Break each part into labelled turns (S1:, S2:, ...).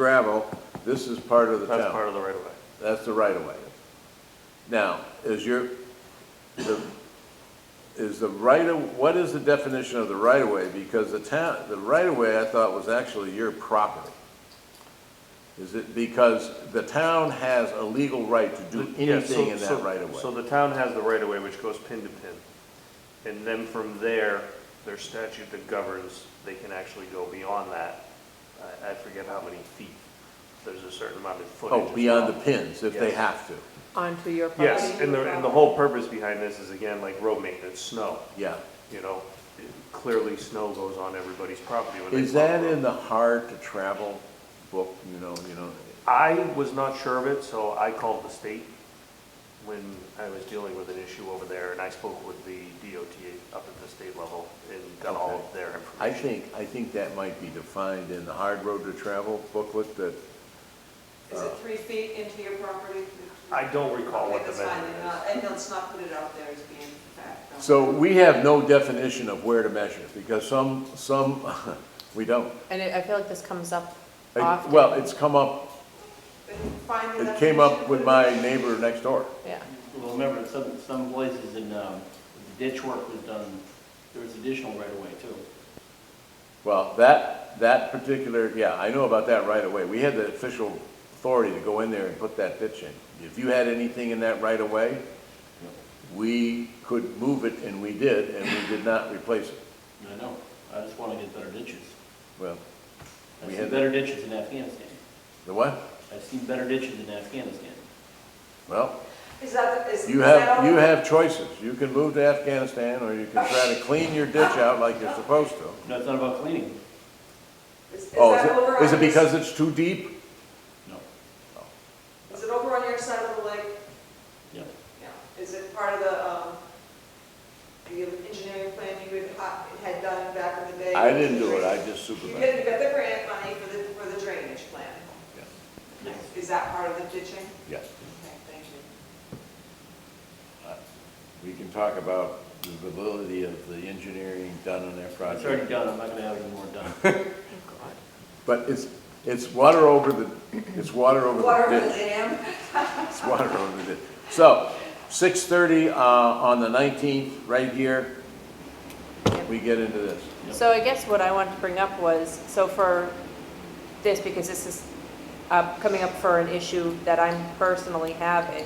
S1: gravel, this is part of the town.
S2: That's part of the right of way.
S1: That's the right of way. Now, is your, the, is the right of, what is the definition of the right of way? Because the town, the right of way I thought was actually your property. Is it, because the town has a legal right to do
S2: Yeah, so-
S1: anything in
S2: so-
S1: that right of
S2: So
S1: way?
S2: the town has the right of way, which goes pin to pin. And then from there, there's statute that governs, they can actually go beyond that. I, I forget how many feet. There's a certain amount of footage.
S1: Oh,
S2: as
S1: beyond
S2: well.
S1: the pins, if they
S2: Yes.
S1: have to,
S3: onto your property.
S2: Yes, and the, and the whole purpose behind this is again, like road maintenance, snow,
S1: yeah.
S2: you know? Clearly, snow goes on everybody's property when they.
S1: Is
S2: plow
S1: that
S2: the road.
S1: in the hard to travel book, you know, you know?
S2: I was not sure of it, so I called the state when I was dealing with an issue over there, and I spoke with the DOT up at the state level and got all of their
S1: I
S2: information.
S1: think, I think that might be defined in the hard road to travel booklet that Uh,
S4: Is it three feet into your property?
S2: I don't recall what the
S4: Okay, that's fine,
S2: measurement
S4: then not- And let's not put it out there as being fact. don't-
S1: So we have no definition of where to measure, because some, some, we don't.
S3: And I I feel like this comes up
S1: I-
S3: often.
S1: Well, it's come up,
S4: But find the
S1: it came up
S4: definition,
S1: with
S4: put it
S1: my
S4: in.
S1: neighbor next door.
S3: Yeah,
S5: Well, remember, some, some places in, um, the ditch work was done, there was additional right away too.
S1: Well, that, that particular, yeah, I know about that right away. We had the official authority to go in there and put that ditch in. If you had anything in that right of way, we could move it, and we did, and we did not replace it.
S5: I know, I just wanna get better ditches.
S1: Well,
S5: I've
S1: We
S5: seen
S1: had-
S5: better ditches in Afghanistan.
S1: the what?
S5: I've seen better ditches in Afghanistan.
S1: Well,
S4: Is that, is.
S1: you
S4: is that
S1: have,
S4: all-
S1: you have choices. You can move to Afghanistan, or you can try to clean your ditch out like you're supposed to.
S5: No, it's not about cleaning,
S4: Is is
S1: Oh, is
S4: that over
S1: it, is
S4: on
S1: it
S4: your-
S1: because it's too deep?
S5: no,
S4: Is it over on your side of the lake?
S5: yeah.
S4: Yeah. Is it part of the, um, the engineering plan you had, uh, had done back in the day?
S1: I didn't do it, I just
S4: You
S1: supervised.
S4: did, you got the grant money for the, for the drainage plan.
S1: Yes.
S5: Yes.
S4: Is that part of the ditching?
S1: Yes,
S4: Okay, thank you.
S1: we can talk about the validity of the engineering done on that
S5: It's already
S1: project.
S5: done, I'm not gonna have it anymore done.
S1: But it's, it's water over the, it's water over
S4: Water
S1: the
S4: over the
S1: ditch.
S4: dam?
S1: It's water over the ditch. So, six thirty, uh, on the nineteenth, right here, we get into this.
S3: so I guess what I wanted to bring up was, so for this, because this is uh, coming up for an issue that I'm personally having,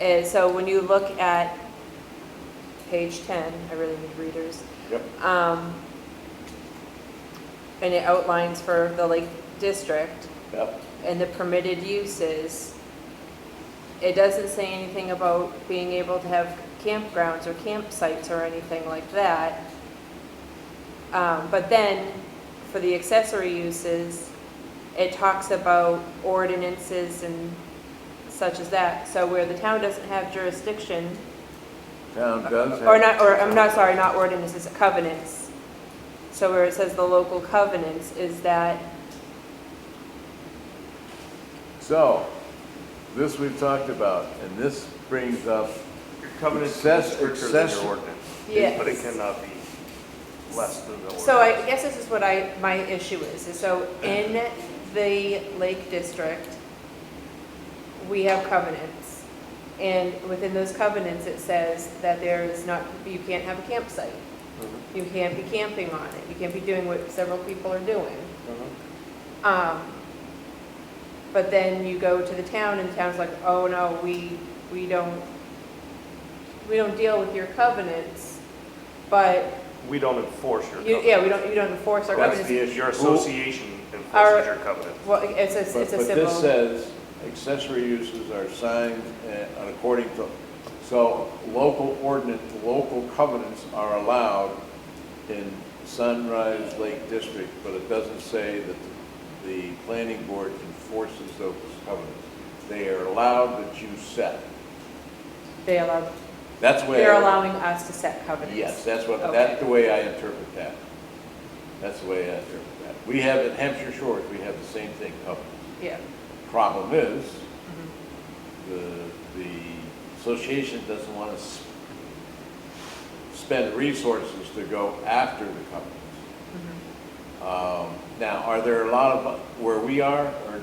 S3: is, so when you look at page 10, I really need readers,
S1: Yep.
S3: um, and it outlines for the Lake District,
S1: Yep.
S3: and the permitted uses, it doesn't say anything about being able to have campgrounds or campsites or anything like that. Um, but then, for the accessory uses, it talks about ordinances and such as that. So where the town doesn't have jurisdiction,
S1: Town does have.
S3: or not, or, I'm not, sorry, not ordinances, covenants. So where it says the local covenants is that,
S1: So, this we've talked about, and this brings up,
S2: Your covenant is
S1: Excess-
S2: stricter than
S1: excess-
S2: your ordinance.
S3: Yes.
S2: But it cannot be less than the ordinance.
S3: So I guess this is what I, my issue is, is so in the Lake District, we have covenants. And within those covenants, it says that there is not, you can't have a campsite.
S2: Mhm,
S3: You can't be camping on it. You can't be doing what several people are doing.
S2: mhm.
S3: Um, but then you go to the town and the town's like, oh no, we, we don't, we don't deal with your covenants, but,
S2: We don't enforce your
S3: you,
S2: covenant.
S3: yeah, we don't, you don't enforce our
S1: That's
S3: covenants.
S1: the issue.
S2: Your association enforces
S3: Our-
S2: your covenant.
S3: Well, it's a,
S1: but,
S3: it's
S1: but
S3: a
S1: this uh,
S3: civil,
S1: says accessory uses are signed uh, according to, so local ordinance, local covenants are allowed in Sunrise Lake District, but it doesn't say that the planning board enforces those covenants. They are allowed that you set.
S3: they allow,
S1: That's where.
S3: they're allowing us to set covenants.
S1: Yes, that's what,
S3: Okay.
S1: that's the way I interpret that. That's the way I interpret that. We have, at Hampshire Shores, we have the same thing covered.
S3: Yeah,
S1: Problem is, the, the association doesn't want to spend resources to go after the companies. Um, Now, are there a lot of, where we are, or